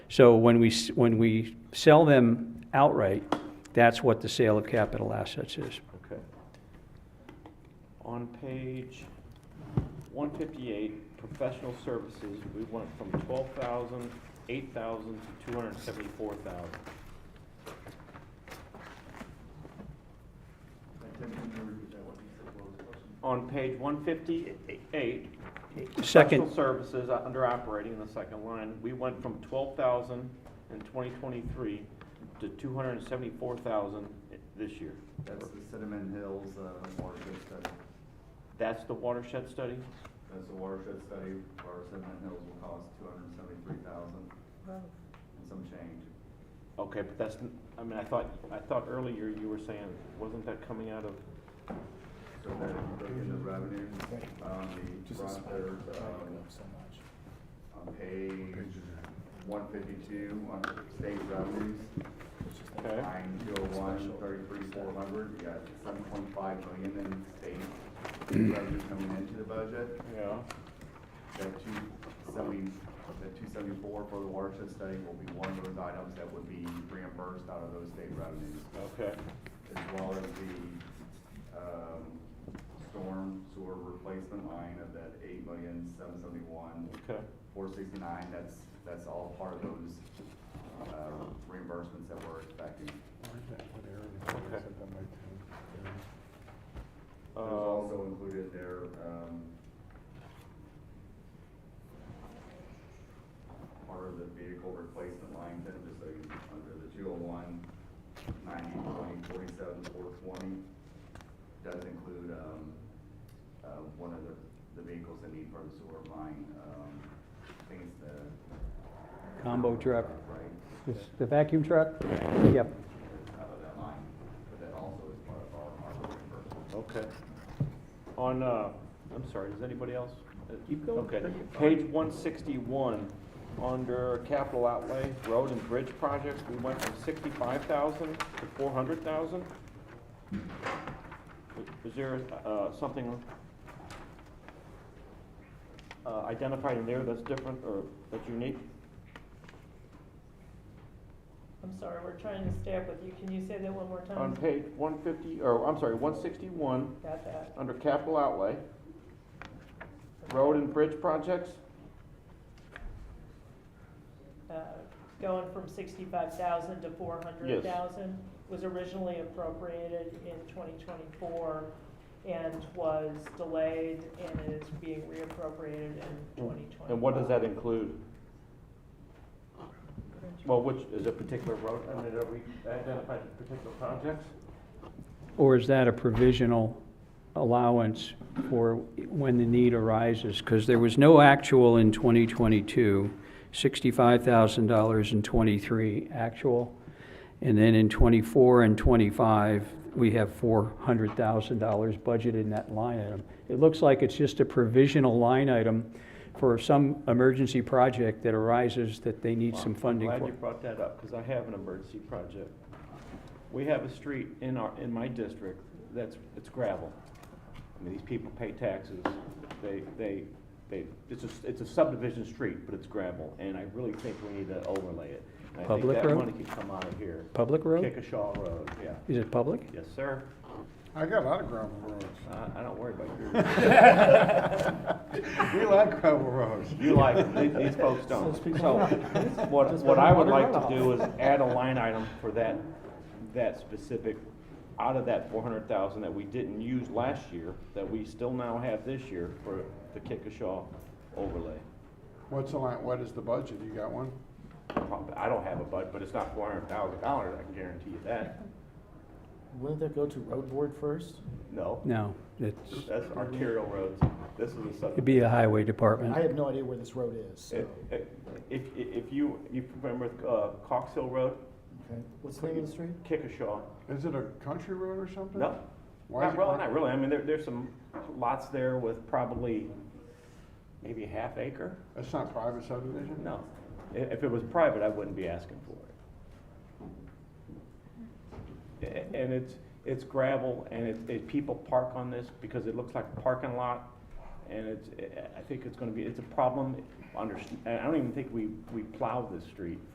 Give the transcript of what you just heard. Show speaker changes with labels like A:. A: So when we, s- when we sell them outright, that's what the sale of capital assets is.
B: Okay. On page one fifty-eight, professional services, we went from twelve thousand, eight thousand to two hundred and seventy-four thousand. On page one fifty-eight.
A: Second.
B: Professional services, uh, under operating, in the second line, we went from twelve thousand in twenty twenty-three to two hundred and seventy-four thousand this year.
C: That's the Cinnamon Hills uh, watershed study.
B: That's the watershed study?
C: That's the watershed study, where Cinnamon Hills will cost two hundred and seventy-three thousand and some change.
B: Okay, but that's, n- I mean, I thought, I thought earlier you were saying, wasn't that coming out of,
C: So that if you look into revenue, um, the front, there's, um, on page one fifty-two, on state revenues,
B: okay,
C: line two oh one, thirty-three, four hundred, you got seven point five million in state revenue coming into the budget.
B: yeah,
C: That two seventy, that two seventy-four for the watershed study will be one of those items that would be reimbursed out of those state revenues,
B: okay,
C: as well as the, um, storm sewer replacement line of that eight million, seven seventy-one,
B: okay,
C: four sixty-nine, that's, that's all part of those, uh, reimbursements that we're expecting. There's
B: um,
C: also included there, um, part of the vehicle replacement line, then just so you, under the two oh one, ninety, twenty, forty-seven, four twenty, does include, um, uh, one of the, the vehicles that need for the sewer line, um, things that.
A: Combo truck.
C: Right,
A: The vacuum truck? Yep.
C: out of that line, but that also is part of our, our reimbursement.
B: okay. On, uh, I'm sorry, does anybody else? Uh,
C: Keep going.
B: Okay,
C: Take your time.
B: page one sixty-one, under capital outlay, road and bridge projects, we went from sixty-five thousand to four hundred thousand? Is there, uh, something uh, identified in there that's different or that's unique?
D: I'm sorry, we're trying to stay up with you. Can you say that one more
C: Um.
B: On
D: time?
B: page one fifty, or I'm sorry, one sixty-one,
D: Got that.
B: under capital outlay, road and bridge projects,
D: Uh, Going from sixty-five thousand to four hundred thousand was originally appropriated in twenty twenty-four and was delayed and is being reappropriated in twenty twenty.
B: and what does that include? Well, which, is a particular road, I mean, are we identified particular projects?
A: Or is that a provisional allowance for when the need arises? Because there was no actual in 2022, $65,000 in '23 actual. And then in '24 and '25, we have $400,000 budgeted in that line item. It looks like it's just a provisional line item for some emergency project that arises that they need some funding
B: I'm
A: for.
B: Glad you brought that up, because I have an emergency project. We have a street in our, in my district that's, it's gravel. I mean, these people pay taxes, they, they, they, it's a, it's a subdivision street, but it's gravel, and I really think we need to overlay it. And
A: Public
B: I
A: road?
B: think that money could come out of here.
A: Public road?
B: Chickasha Road, yeah.
A: Is it public?
B: Yes, sir.
E: I got a lot of gravel roads.
B: I, I don't worry about yours.
E: We like gravel roads.
B: You like, it. These- these folks don't. So, what, what I would like to do is add a line item for that, that specific, out of that four hundred thousand that we didn't use last year, that we still now have this year for the Chickasha overlay.
E: What's the line, what is the budget? You got one?
B: Prob- I don't have a bud, but it's not four hundred thousand dollars, I can guarantee you that.
F: Wouldn't that go to road board first?
B: No,
A: No, it's,
B: that's arterial roads. This is a sub.
A: it'd be a highway
F: I
A: department.
F: have no idea where this road is, so.
B: If, if- if, if you, you remember, uh, Cox Hill Road,
F: Okay. What's the name of the street?
B: Chickasha,
E: Is it a country road or something?
B: no,
E: Why
B: Not
E: is it
B: really,
E: called-
B: not really. I mean, there, there's some lots there with probably maybe a half acre.
E: It's not private subdivision?
B: No. I- If it was private, I wouldn't be asking for it. A- And it's, it's gravel and it, it, people park on this because it looks like a parking lot. And it's, I- I think it's gonna be, it's a problem under, I don't even think we, we plowed this street